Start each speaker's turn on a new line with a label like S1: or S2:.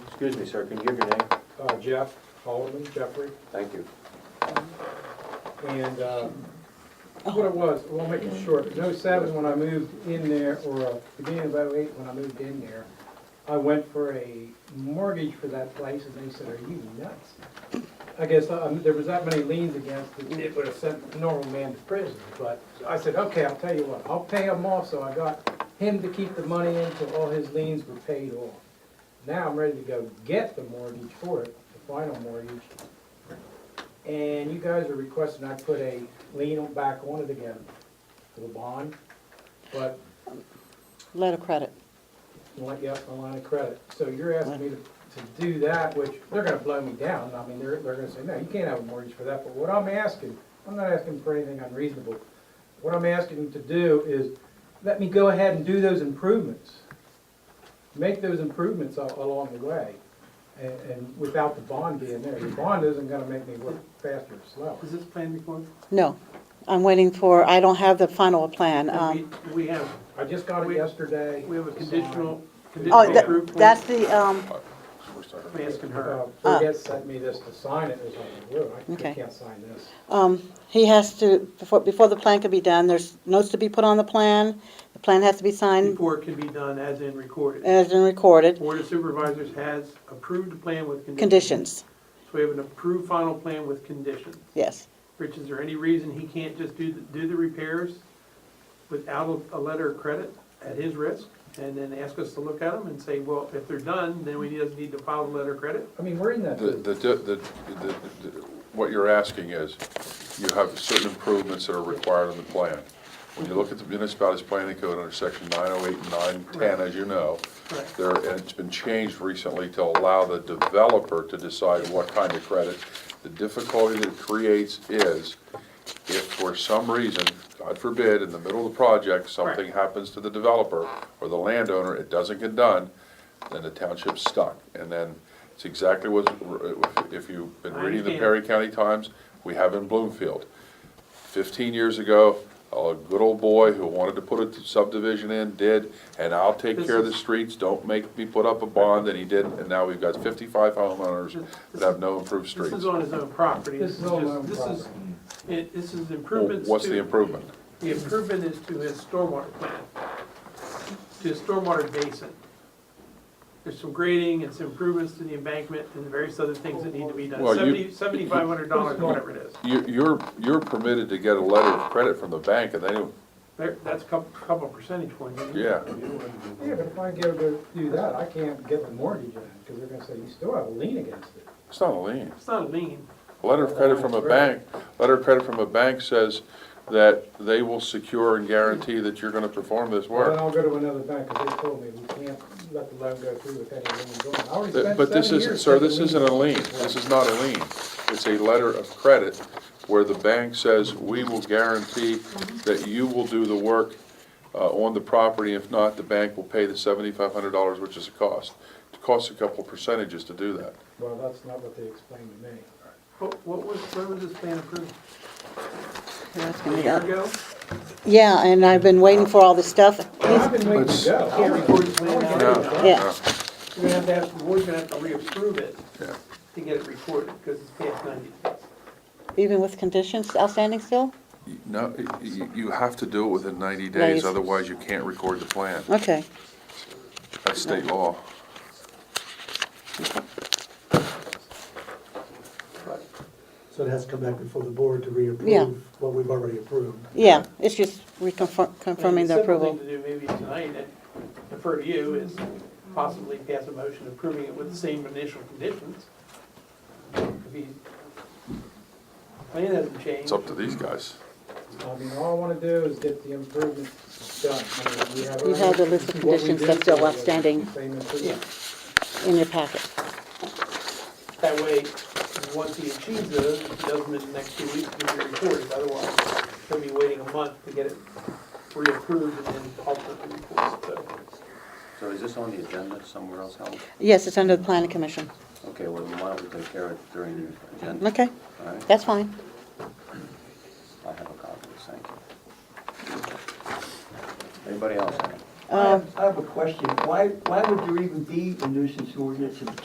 S1: Excuse me, sir, can you give your name?
S2: Uh, Jeff, Alderman Jeffrey,
S1: Thank you.
S2: and uh, what it was, we'll make it short. No seven, when I moved in there, or uh, beginning of oh eight, when I moved in there, I went for a mortgage for that place, and they said, are you nuts? I guess um, there was that many liens against it, it would have sent a normal man to prison, but I said, okay, I'll tell you what, I'll pay him off, so I got him to keep the money in till all his liens were paid off. Now I'm ready to go get the mortgage for it, the final mortgage, and you guys are requesting I put a lien on- back on it again for the bond, but,
S3: Letter of credit.
S2: well, yes, a line of credit. So you're asking me to, to do that, which they're gonna blow me down. I mean, they're, they're gonna say, no, you can't have a mortgage for that. But what I'm asking, I'm not asking for anything unreasonable. What I'm asking them to do is, let me go ahead and do those improvements. Make those improvements a- along the way, and, and without the bond being there. The bond isn't gonna make me work faster or slower.
S4: Is this plan before?
S3: No, I'm waiting for, I don't have the final plan.
S4: We,
S3: Um,
S4: we have,
S2: I just got it
S4: We-
S2: yesterday.
S4: we have a conditional,
S3: Oh,
S4: conditional
S3: that-
S4: approved plan.
S3: that's the, um,
S4: I'm Asking her.
S2: Uh, Forget sent me this to sign it, it's like, "Whoa, I- I
S3: Ah. Okay.
S2: can't sign this.
S3: um, he has to, before, before the plan can be done, there's notes to be put on the plan. The plan has to be signed
S4: Report can be done as in recorded.
S3: as and recorded,
S4: Board of Supervisors has approved the plan with
S3: conditions,
S4: conditions. So we have an approved final plan with conditions.
S3: yes.
S4: Rich, is there any reason he can't just do, the- do the repairs without a, a letter of credit at his risk? And then ask us to look at them and say, well, if they're done, then we just need to file the letter of credit?
S2: I mean, we're in that,
S5: The, the, the, the- the- what you're asking is, you have certain improvements that are required in the plan. When you look at the municipality's planning code under section nine oh eight and nine ten, as you know,
S4: Correct.
S5: there, and it's been changed recently to allow the developer to decide what kind of credit. The difficulty that it creates is, if for some reason, God forbid, in the middle of the project, something happens to the developer or the landowner, it doesn't get done, then the township's stuck. And then it's exactly what, if you've been
S4: I
S5: reading the
S4: understand.
S5: Perry County Times, we have in Bloomfield. Fifteen years ago, a good old boy who wanted to put a subdivision in did, and I'll take care of the streets, don't make me put up a bond, and he didn't, and now we've got fifty-five homeowners that have no improved
S4: This
S5: streets.
S4: is on his own property.
S2: This is on my own
S4: This is-
S2: property.
S4: It, this is
S5: Well,
S4: improvements to.
S5: What's the improvement?
S4: The improvement is to his stormwater plan, to his stormwater basin. There's some grading and some improvements to the embankment and various other things that need to be done.
S5: Well, you-
S4: Seventy, seventy-five hundred dollars, whatever it is.
S5: You, you're, you're permitted to get a letter of credit from the bank, and they don't,
S4: There, that's a couple, couple percentage points. isn't it?
S5: yeah.
S2: yeah, but if I go to do that, I can't get the mortgage in, because they're gonna say, you still have a lien against it.
S5: It's not a lien.
S4: It's not a lien.
S5: A letter of credit from a bank, letter of credit from a bank says that they will secure and guarantee that you're gonna perform this
S2: Well, Then
S5: work.
S2: I'll go to another bank, because they told me we can't let the loan go through with any liens on it. I already spent
S5: But this
S2: seven
S5: isn't,
S2: years
S5: sir, this
S2: taking
S5: isn't a
S2: liens.
S5: lien. This is not a lien. It's a letter of credit where the bank says, we will guarantee that you will do the work uh, on the property. If not, the bank will pay the seventy-five hundred dollars, which is a cost. It costs a couple percentages to do that.
S2: Well, that's not what they explained to me.
S4: What, what was, when was this plan approved?
S3: You're asking
S4: A
S3: me
S4: year
S3: that.
S4: ago?
S3: Yeah, and I've been waiting for all this stuff.
S2: I've been waiting to go.
S4: Can't record the plan now.
S5: No, no.
S3: Yeah.
S4: We're gonna have to have, the board's gonna have to reapprove it
S5: Yeah.
S4: to get it recorded, because it's past ninety days.
S3: Even with conditions outstanding still?
S5: No, y- y- you have to do it within 90
S3: Days.
S5: days, otherwise you can't record the plan.
S3: Okay.
S5: That's state law.
S6: So it has to come back before the board to
S3: Yeah.
S6: reapprove what we've already approved.
S3: Yeah, it's just reconfirm,
S4: I mean,
S3: confirming the
S4: Simple
S3: approval.
S4: thing to do maybe tonight, and defer to you, is possibly pass a motion approving it with the same initial conditions. If he, plan hasn't
S5: It's
S4: changed,
S5: up to these guys.
S2: I mean, all I wanna do is get the improvements done. I mean, we have
S3: You have the list of
S2: already- what we
S3: conditions
S2: did
S3: that's still
S2: was the
S3: outstanding.
S2: Same improvement.
S3: in your packet.
S4: that way, once he achieves those, if he does them in the next two weeks, it'll be recorded, otherwise, he'll be waiting a month to get it reapproved and then ultimately recorded, so.
S1: So is this on the agenda somewhere else, Howard?
S3: Yes, it's under the planning commission.
S1: Okay, well, then why don't we take care of it during the agenda?
S3: Okay,
S1: All right,
S3: that's fine.
S1: I have a copy, thank you. Anybody else?
S3: Um,
S7: I have I have a question. Why, why would there even be a nuisance ordinance if